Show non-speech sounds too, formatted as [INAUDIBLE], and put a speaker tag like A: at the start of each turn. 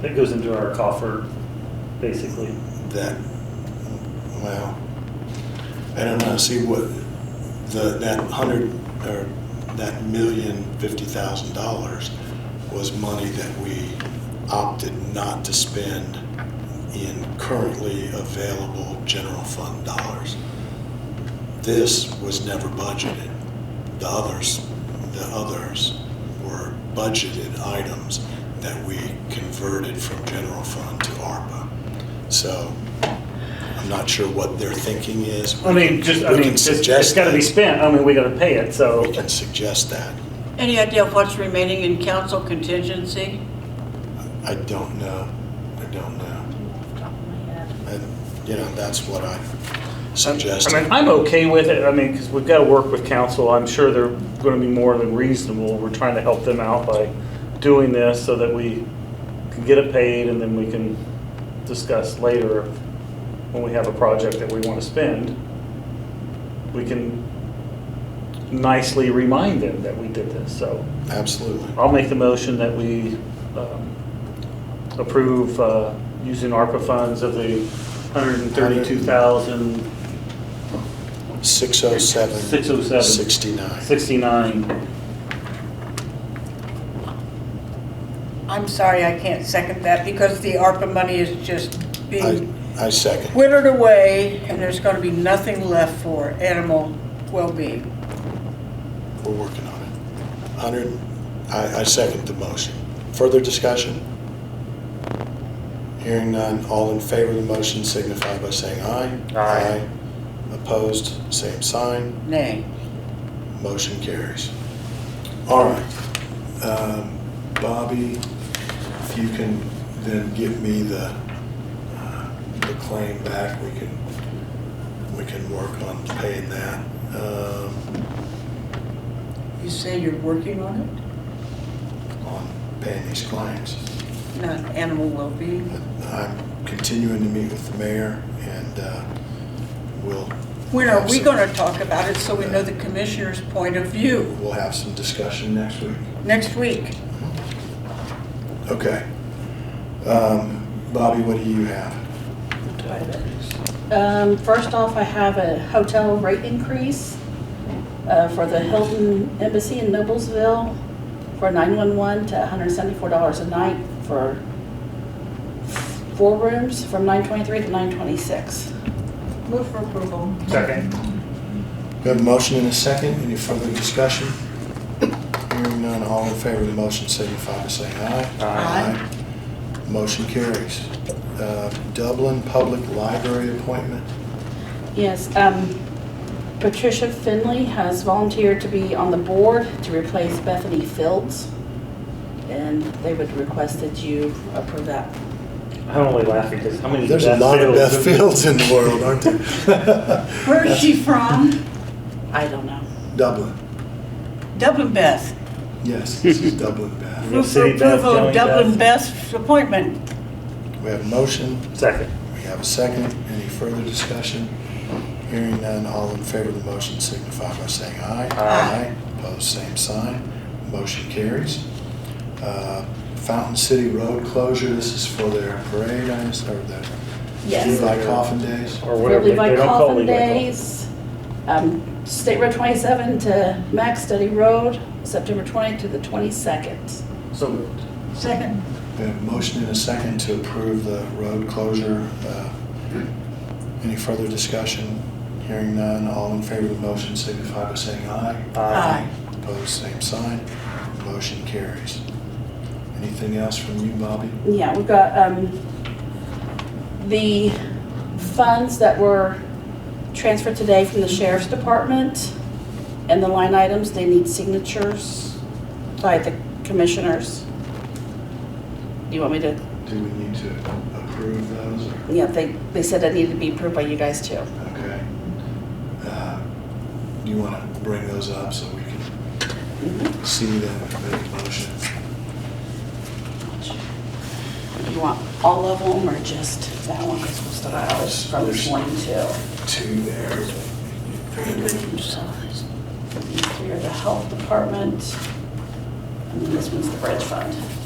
A: That goes into our coffer, basically.
B: that, well, I don't know, see what, the, that hundred, or that million fifty thousand dollars was money that we opted not to spend in currently available general fund dollars. This was never budgeted. The others, the others were budgeted items that we converted from general fund to ARPA. So I'm not sure what their thinking is.
A: I mean, just, I
B: We
A: mean,
B: can
A: it's, it's
B: suggest
A: gotta be
B: that.
A: spent, I mean, we gotta pay it,
B: We
A: so.
B: can suggest that.
C: Any idea of what's remaining in council contingency?
B: I don't know. I don't know. And, you know, that's what I suggest.
A: I mean, I'm okay with it, I mean, because we've gotta work with council, I'm sure they're gonna be more than reasonable. We're trying to help them out by doing this so that we can get it paid and then we can discuss later when we have a project that we wanna spend. We can nicely remind them that we did this, so.
B: Absolutely.
A: I'll make the motion that we um, approve uh, using ARPA funds of the 132,069
B: 607.
A: 607.
B: 69.
C: I'm sorry, I can't second that because the ARPA money is just
B: I,
C: being
B: I second.
C: withered away and there's going to be nothing left for animal well-being.
B: We're working on it. 100, I, I second the motion. Further discussion? Hearing none, all in favor of the motion signify by saying aye.
A: Aye.
B: Opposed, same sign.
C: Nay.
B: Motion carries. All right. Um, Bobby, if you can then give me the, uh, the claim back, we can, we can work on paying that. Um,
C: You say you're working on
B: on paying these claims.
C: it? Not animal well-being?
B: I'm continuing to meet with the mayor and uh, we'll.
C: When are we
B: have some-
C: going to talk about it so we know the commissioner's point of view
B: We'll have some discussion next week.
C: next week?
B: Okay. Um, Bobby, what do you have?
D: Um, First off, I have a hotel rate increase uh, for the Hilton Embassy in Noblesville for 911 to $174 a night for four rooms from 923 to 926.
C: Move for approval.
A: Second.
B: We have a motion and a second. Any further discussion? Hearing none, all in favor of the motion signify by saying aye.
D: Aye.
B: Aye. Motion carries. Uh, Dublin Public Library appointment.
D: Yes, um, Patricia Finley has volunteered to be on the board to replace Bethany Fields, and they would request that you approve that.
A: I'm only laughing because how many?
B: There's a
A: Beth
B: lot of
A: Fields-
B: Beth Fields in the world, aren't there? [LAUGHS]
C: Where is she from?
D: I don't know.
B: Dublin.
C: Dublin Beth.
B: Yes, this is Dublin Bath.
A: Move for
C: Move for
A: City Beth, approval
C: approval
A: of Joey
C: of
A: Beth. Dublin
C: Dublin Beth's appointment.
B: We have a motion,
A: Second.
B: we have a second. Any further discussion? Hearing none, all in favor of the motion signify by saying aye.
A: Aye.
B: Opposed, same sign. Motion carries. Uh, Fountain City Road closure, this is for their parade, I just heard that.
D: Yes.
B: Levi Coffin Days.
A: Or
D: For
A: whatever. they-
D: Levi
A: they don't call
D: Coffin
A: Levi Coffin.
D: Days, um, State Road 27 to Max Study Road, September 20th to the 22nd.
A: So moved.
C: Second.
B: We have a motion and a second to approve the road closure. Uh, Any further discussion? Hearing none, all in favor of the motion signify by saying aye.
C: Aye.
B: Opposed, same sign. Motion carries. Anything else from you, Bobby?
D: Yeah, we've got um, the funds that were transferred today from the Sheriff's Department and the line items, they need signatures by the commissioners. Do you want me to,
B: Do we need to approve those? or-
D: yeah, they, they said that needed to be approved by you guys too.
B: Okay. Uh, Do you want to bring those up so we can
A: Mm-hmm.
B: see them and make a motion?
D: Do you want all of them or just that one? Because we'll start out from
B: There's-
D: one, two,
B: Two there.
D: three are the health department. And then this one's the bridge fund.